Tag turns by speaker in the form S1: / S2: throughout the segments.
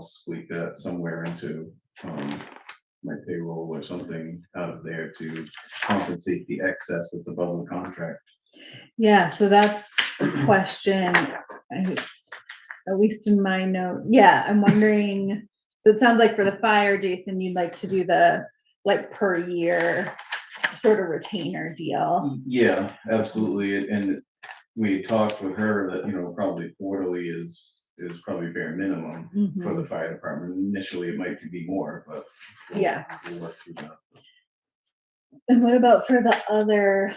S1: squeak that somewhere into, um, my payroll or something out of there to compensate the excess that's above the contract.
S2: Yeah, so that's a question, I- at least in my note, yeah, I'm wondering, so it sounds like for the fire, Jason, you'd like to do the, like, per year sort of retainer deal.
S1: Yeah, absolutely, and we talked with her that, you know, probably quarterly is, is probably bare minimum
S2: Mm-hmm,
S1: for the fire department. Initially, it might be more, but. we'll-
S2: Yeah.
S1: We'll work through that.
S2: And what about for the other,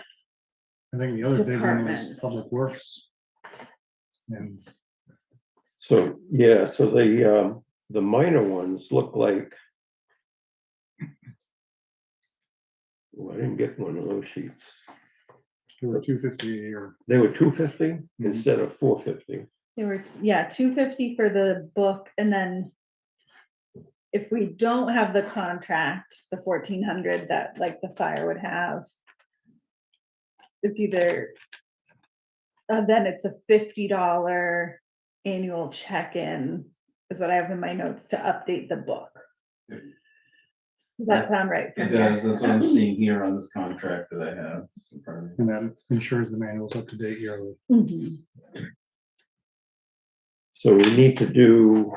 S3: I think the other big one was
S2: Departments.
S3: Public Works. And
S4: So, yeah, so the, um, the minor ones look like. Well, Oh, I didn't get one of those sheets.
S3: there were two fifty a year.
S4: They were two fifty
S3: Mhm.
S4: instead of four fifty.
S2: there were, t- yeah, two fifty for the book, and then if we don't have the contract, the fourteen hundred that, like, the fire would have, it's either, uh, then it's a fifty dollar annual check-in, is what I have in my notes to update the book.
S1: Yep.
S2: Does that sound right?
S1: It
S2: from your-
S1: does, that's what I'm seeing here on this contract that I have. in front of me.
S3: And that ensures the manual's up to date yearly.
S2: Mhm.
S4: So we need to do,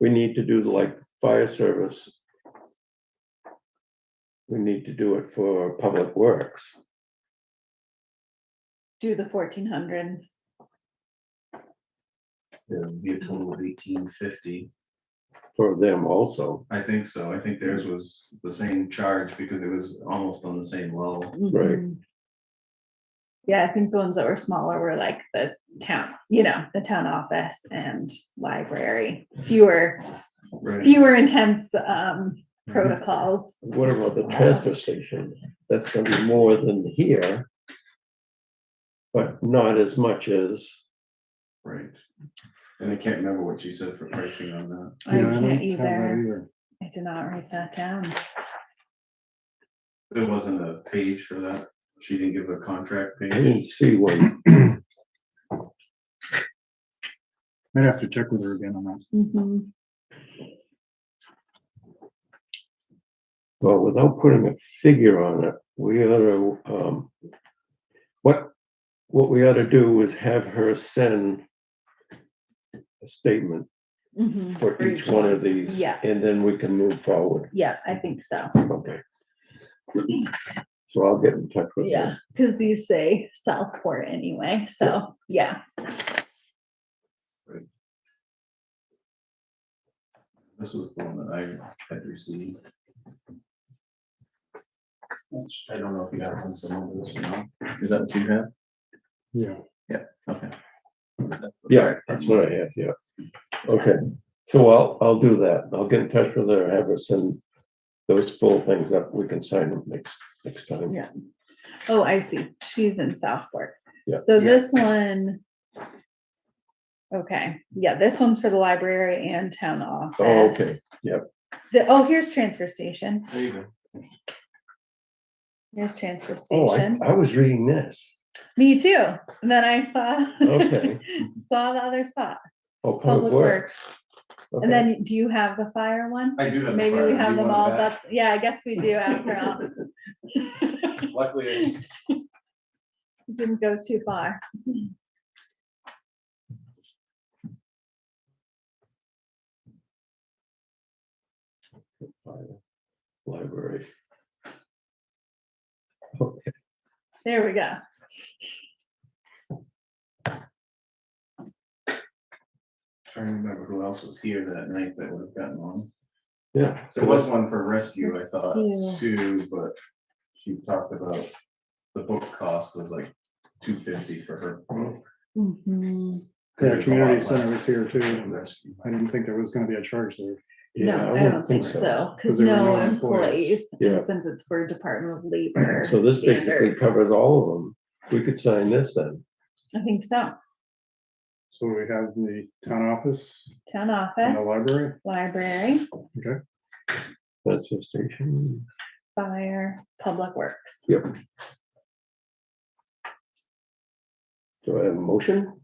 S4: we need to do like fire service. We need to do it for public works.
S2: Do the fourteen hundred.
S1: It would be a total of eighteen fifty.
S4: for them also,
S1: I think so. I think theirs was the same charge because it was almost on the same level.
S4: Right.
S2: Mm-hmm. Yeah, I think the ones that were smaller were like the town, you know, the town office and library, fewer,
S1: Right.
S2: fewer intense um
S3: Mm-hmm.
S2: protocols.
S4: What about the transfer station? That's gonna be more than here. But not as much as,
S1: Right. And I can't remember what she said for pricing on that.
S2: I
S3: Yeah, don't
S2: can't
S3: have that e-
S2: either. I did not write that down.
S1: There wasn't a page for that. She didn't give a contract
S4: I
S1: page.
S4: didn't see one.
S3: I'd have to check with her again on that.
S2: Mhm.
S4: Well, without putting a figure on it, we ought to, um, what, what we ought to do is have her send a statement
S2: Mhm.
S4: for each one of these.
S2: Yeah.
S4: And then we can move forward.
S2: Yeah, I think so.
S4: Okay. So I'll get in touch with
S2: Yeah,
S4: her.
S2: because these say Southport anyway, so yeah.
S1: This was the one that I had received. Which I don't know if you got one, some of this, or not. Is that what you have?
S3: Yeah.
S1: Okay.
S4: Yeah, that's what I have, yeah. Okay, so I'll, I'll do that. I'll get in touch with her, have her send those full things up. We can sign them next, next time.
S2: Yeah. Oh, I see. She's in Southport.
S4: Yeah.
S2: So this one. Okay, yeah, this one's for the library and town office.
S4: Oh, okay, yep.
S2: The, oh, here's transfer station.
S1: There you go.
S2: Here's transfer
S4: Oh, I,
S2: station.
S4: I was reading this.
S2: Me too. And then I saw.
S4: Okay.
S2: Saw the other spot,
S4: Oh,
S2: public works.
S4: Okay.
S2: And then do you have the fire one?
S1: I do have. the
S2: Maybe
S1: file.
S2: we
S1: Do
S2: have
S1: you
S2: them all,
S1: want it
S2: but yeah, I guess we do after all.
S1: back? Luckily, I
S2: Didn't go too far.
S4: Library. Okay,
S2: There we go.
S1: trying to remember who else was here that night that would have gotten on.
S4: yeah.
S1: There was one for rescue, I thought,
S2: Rescue.
S1: too, but she talked about the book cost was like two fifty for her. book.
S2: Mhm.
S3: Yeah,
S1: There's a lot
S3: community
S1: less
S3: center was here
S1: for
S3: too.
S1: rescue.
S3: I didn't think there was gonna be a charge there.
S4: Yeah,
S2: No, I
S4: wouldn't
S2: don't think so, because
S3: Because there were
S2: no
S3: no employees.
S2: employees, and
S4: Yeah.
S2: since it's for Department of Labor.
S4: So this basically
S2: standards,
S4: covers all of them. We could sign this then.
S2: I think so,
S3: So we have the town office
S2: town
S3: and the
S2: office,
S3: library.
S2: library,
S4: Transfer station.
S2: fire, public works.
S4: Do I have a motion?